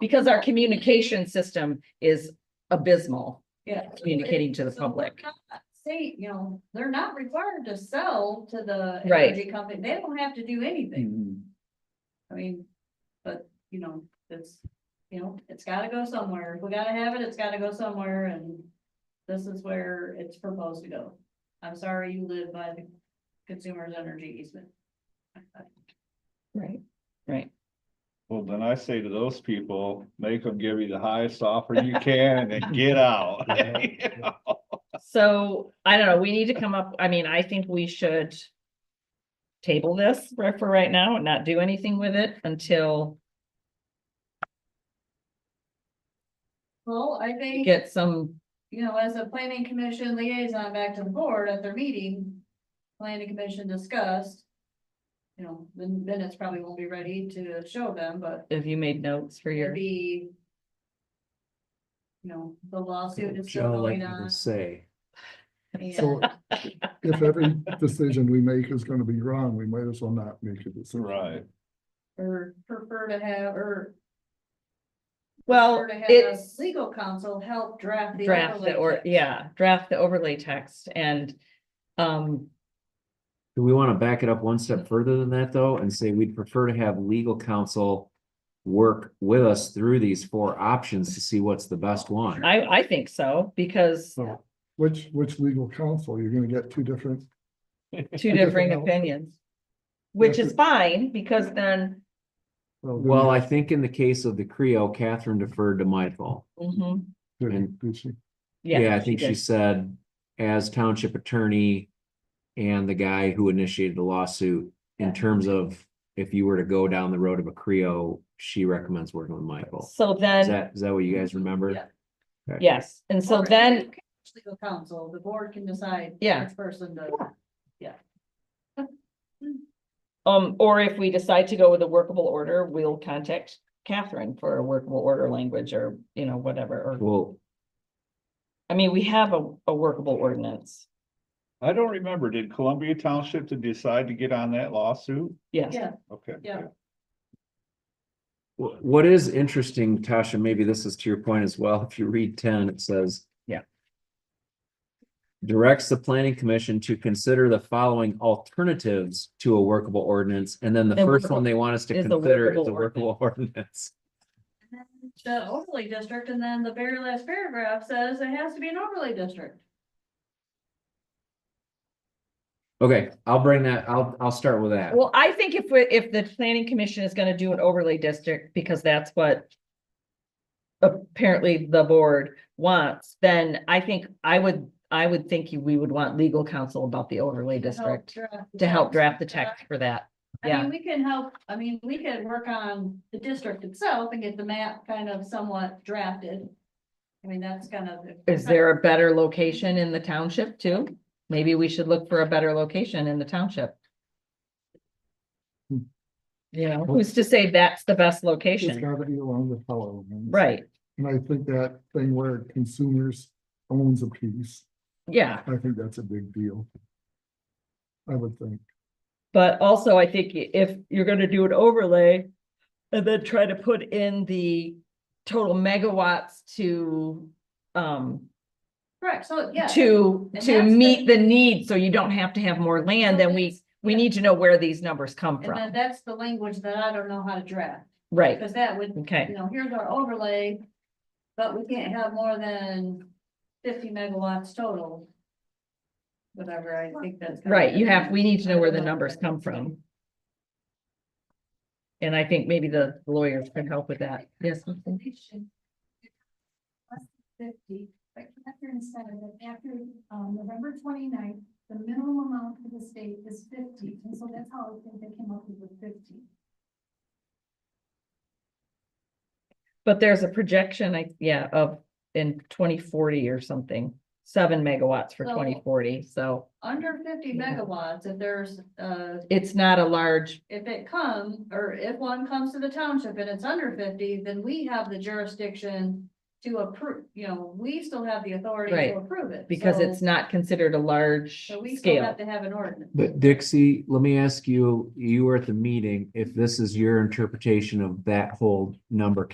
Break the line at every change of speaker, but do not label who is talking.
Because our communication system is abysmal
Yeah.
communicating to the
So we're
public.
not Say, you know, they're not required to sell to the
Right. Mm.
energy company. They don't have to do anything. I mean, but, you know, it's, you know, it's gotta go somewhere. If we gotta have it, it's gotta go somewhere and this is where it's proposed to go. I'm sorry you live by the consumer's energy easement.
Right. Right.
Well, then I say to those people, make them give you the highest offer you can and then get out.
So I don't know, we need to come up, I mean, I think we should table this for, for right now and not do anything with it until
Well, I
we
think,
get some,
you know, as a planning commission liaison back to the board at their meeting, planning commission discussed. You know, the minutes probably won't be ready to show them, but
have you made notes for
It'd
your,
be. You know, the lawsuit is still
Joe
going
like you to
on.
say,
So if every decision we make is gonna be wrong, we might as well not make a decision.
Right.
Or prefer to have, or.
well,
prefer to have
it's.
Legal counsel help draft the.
draft
overlay
the or,
text.
yeah, draft the overlay text and, um,
do we want to back it up one step further than that though and say we'd prefer to have legal counsel work with us through these four options to see what's the best one?
I, I think so, because
So which, which legal counsel? You're gonna get two different,
two differing
Different-
opinions. Which is fine, because then,
well, then
Well, I think in the case of the Creo, Catherine deferred to Michael.
mhm,
did-
and-
did she-
yeah.
Yeah, I think she
did.
said as township attorney and the guy who initiated the lawsuit in terms of if you were to go down the road of a Creo, she recommends working with Michael.
So
Is
then,
that, is that what you guys remember?
Yeah.
yes, and so
Or
then,
Legal counsel, the board can decide.
Yeah.
Which person to,
um, or if we decide to go with a workable order, we'll contact Catherine for a workable order language or, you know, whatever, or,
Well,
I mean, we have a, a workable ordinance.
I don't remember, did Columbia Township to decide to get on that lawsuit?
Yes,
yeah,
Okay.
Yeah.
wh- what is interesting, Tasha, maybe this is to your point as well. If you read ten, it says.
Yeah.
Directs the planning commission to consider the following alternatives to a workable ordinance, and then the
Then
first
workable-
one they want us to
is the
consider is
workable
a workable ordinance.
the overlay district, and then the very last paragraph says it has to be an overlay district.
Okay, I'll bring that, I'll, I'll start with that.
well, I think if we, if the planning commission is gonna do an overlay district, because that's what. Apparently the board wants, then I think I would, I would think you- we would want legal counsel about the overlay
to help
district.
draft the
To help
text.
draft the text for that,
I
yeah,
mean, we can help, I mean, we could work on the district itself and get the map kind of somewhat drafted. I mean, that's kind of.
is there a better location in the township too? Maybe we should look for a better location in the township.
Hmm.
You know, who's to say that's the best
It's
location,
gotta be along the fellow.
right,
And I think that thing where consumers owns a piece,
yeah.
I think that's a big deal. I would think.
But also, I think i- if you're gonna do an overlay and then try to put in the total megawatts to um,
Correct, so, yeah.
to,
And
to
that's
meet the need, so you don't have to have more land,
So
then we,
that's-
we need to know where these numbers come
And then
from,
that's the language that I don't know how to draft,
right?
because that would, you
Okay,
know, here's our overlay. But we can't have more than fifty megawatts total. Whatever, I think that's. kinda-
right, you have, we need to know where the numbers come from. And I think maybe the lawyers can help with that, yes, something?
population. Less than fifty, but Catherine said that after, um, November 29th, the minimum amount for the state is fifty, and so that's how I think they came up with the fifty.
but there's a projection, I, yeah, of in twenty forty or something, seven megawatts for
So-
twenty forty, so
Under fifty
Yeah.
megawatts, if there's, uh,
it's not a large,
if it come, or if one comes to the township and it's under fifty, then we have the jurisdiction. To approve, you know, we still have the authority
Right,
to approve it.
because it's
so-
not considered a large
So we still
scale.
have to have an ordinance.
But Dixie, let me ask you, you were at the meeting, if this is your interpretation of that whole number,